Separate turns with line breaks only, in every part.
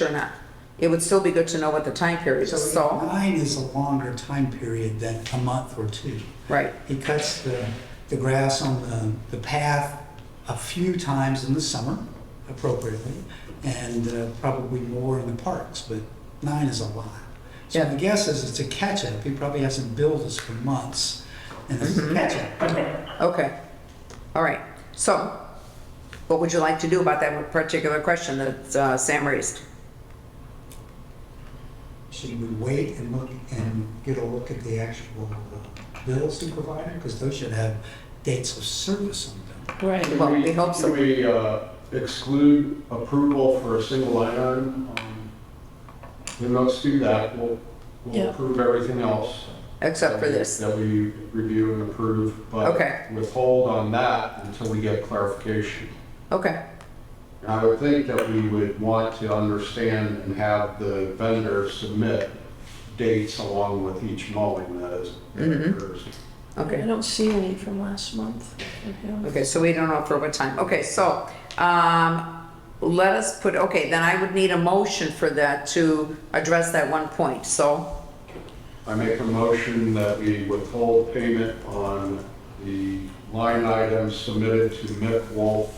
or not. It would still be good to know what the time period is, so,
Nine is a longer time period than a month or two.
right,
He cuts the, the grass on the, the path a few times in the summer appropriately, and uh, probably more in the parks, but nine is a lot. So
Yeah.
the guess is it's a catch-up. He probably hasn't billed us for months, and it's
Mm-hmm.
a catch-up.
okay. All right, so, what would you like to do about that particular question that uh, Sam raised?
Should we wait and look and get a look at the actual uh, bills he provided? Because those should have dates of service on them.
Right.
Well,
Can
we hope so.
Can we uh, exclude approval for a single line item? Um, Then let's do that. We'll, we'll
Yeah.
approve everything else.
Except for
that we-
this,
That we review and approve,
Okay.
but withhold on that until we get clarification.
okay,
And I would think that we would want to understand and have the vendor submit dates along with each mowing that is that
Mhm.
occurs.
I
okay,
don't see any from last month from him.
okay, so we don't know for what time, okay, so, um, let us put, okay, then I would need a motion for that to address that one point, so,
I make a motion that we withhold payment on the line item submitted to Mick Wolf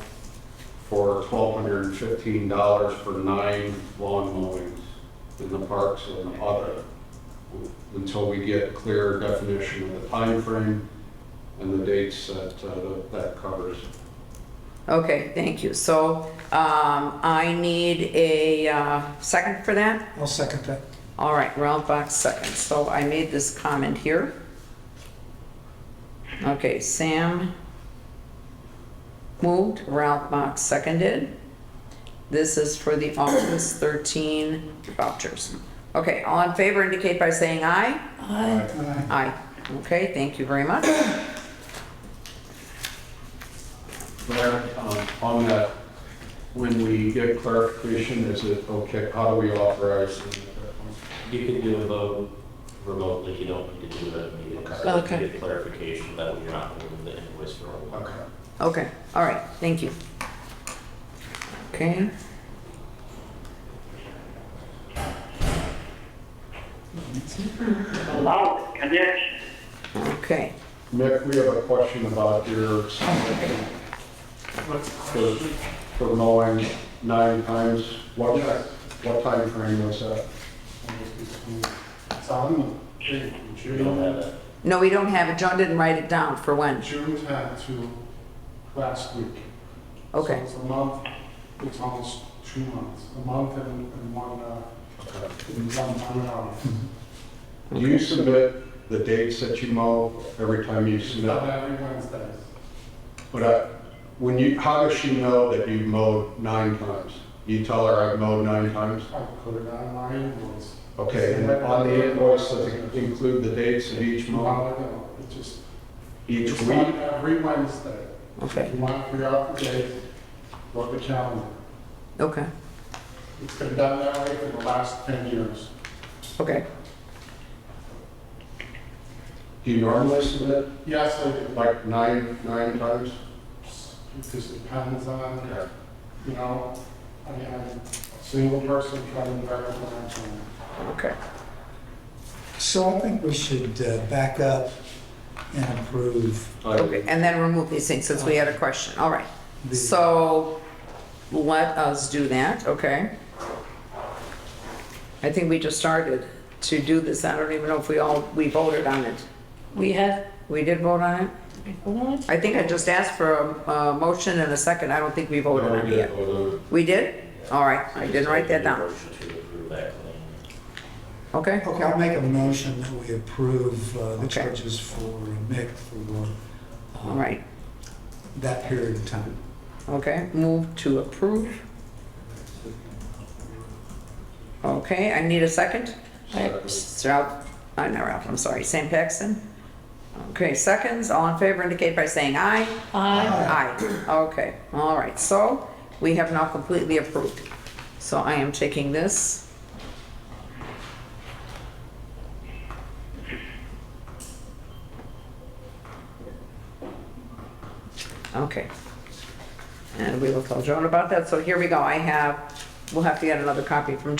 for twelve hundred and fifteen dollars for nine lawn mowings in the parks and other, until we get clear definition of the time frame and the dates that, uh, that covers.
okay, thank you, so, um, I need a, uh, second for that?
I'll second that.
All right, Ralph Box second. So I made this comment here. Okay, Sam moved, Ralph Box seconded. This is for the August 13 vouchers. Okay, all in favor indicate by saying aye.
I,
Uh,
Aye. Okay, thank you very much.
There, um, on that, when we get clarification, is it okay, how do we authorize?
You can do a vote remotely, you don't need to do it at a meeting. So if you
Okay.
get clarification that we're not holding the invoice for a while.
Okay.
Okay, all right, thank you. Okay,
Loud connection.
okay.
Mick, we have a question about your submission for for mowing nine times. What, what time frame was that?
Some June,
We don't have
June,
that.
No, we don't have it. John didn't write it down for when.
June tenth to last week. So
Okay,
it's a month, it's almost two months, a month and, and one, uh, and one, one hour.
Do you submit the dates that you mow every time you
It's
submit?
done every Wednesday.
But I, when you, how does she know that you mowed nine times? You tell her I've mowed nine times?
I put it on my invoice.
Okay, and on the invoice, does it include the dates of each
No,
mow,
I don't, it just,
each
it's
week?
done every Wednesday.
okay,
If you want to figure out the date, look at the calendar.
okay,
It's been done that way for the last ten years.
okay.
Do you normally submit
Yes, I do.
like nine, nine times?
It just depends on You know, I mean, I'm a single person trying to work on my own.
Okay.
So I think we should uh, back up and approve
Okay, and then remove these things since we had a question. All right.
the,
So let us do that, okay? I think we just started to do this. I don't even know if we all, we voted on it.
we had,
We did vote on it?
we voted on it?
I think I just asked for a, a motion and a second. I don't think we
oh,
voted on it yet. We did? All right, I didn't write that down.
Motion to approve that claim.
Okay?
okay, I'll make a motion that we approve uh, the
Okay.
charges for Mick for uh,
All right,
that period of time.
okay. Move to approve. Okay, I need a second?
I-
Ralph, I'm uh, not Ralph, I'm sorry, Sam Paxton. Okay, seconds, all in favor indicate by saying aye.
I,
Aye. Okay, all right, so we have now completely approved. So I am taking this. Okay. And we will tell Joan about that, so here we go, I have We'll have to get another copy from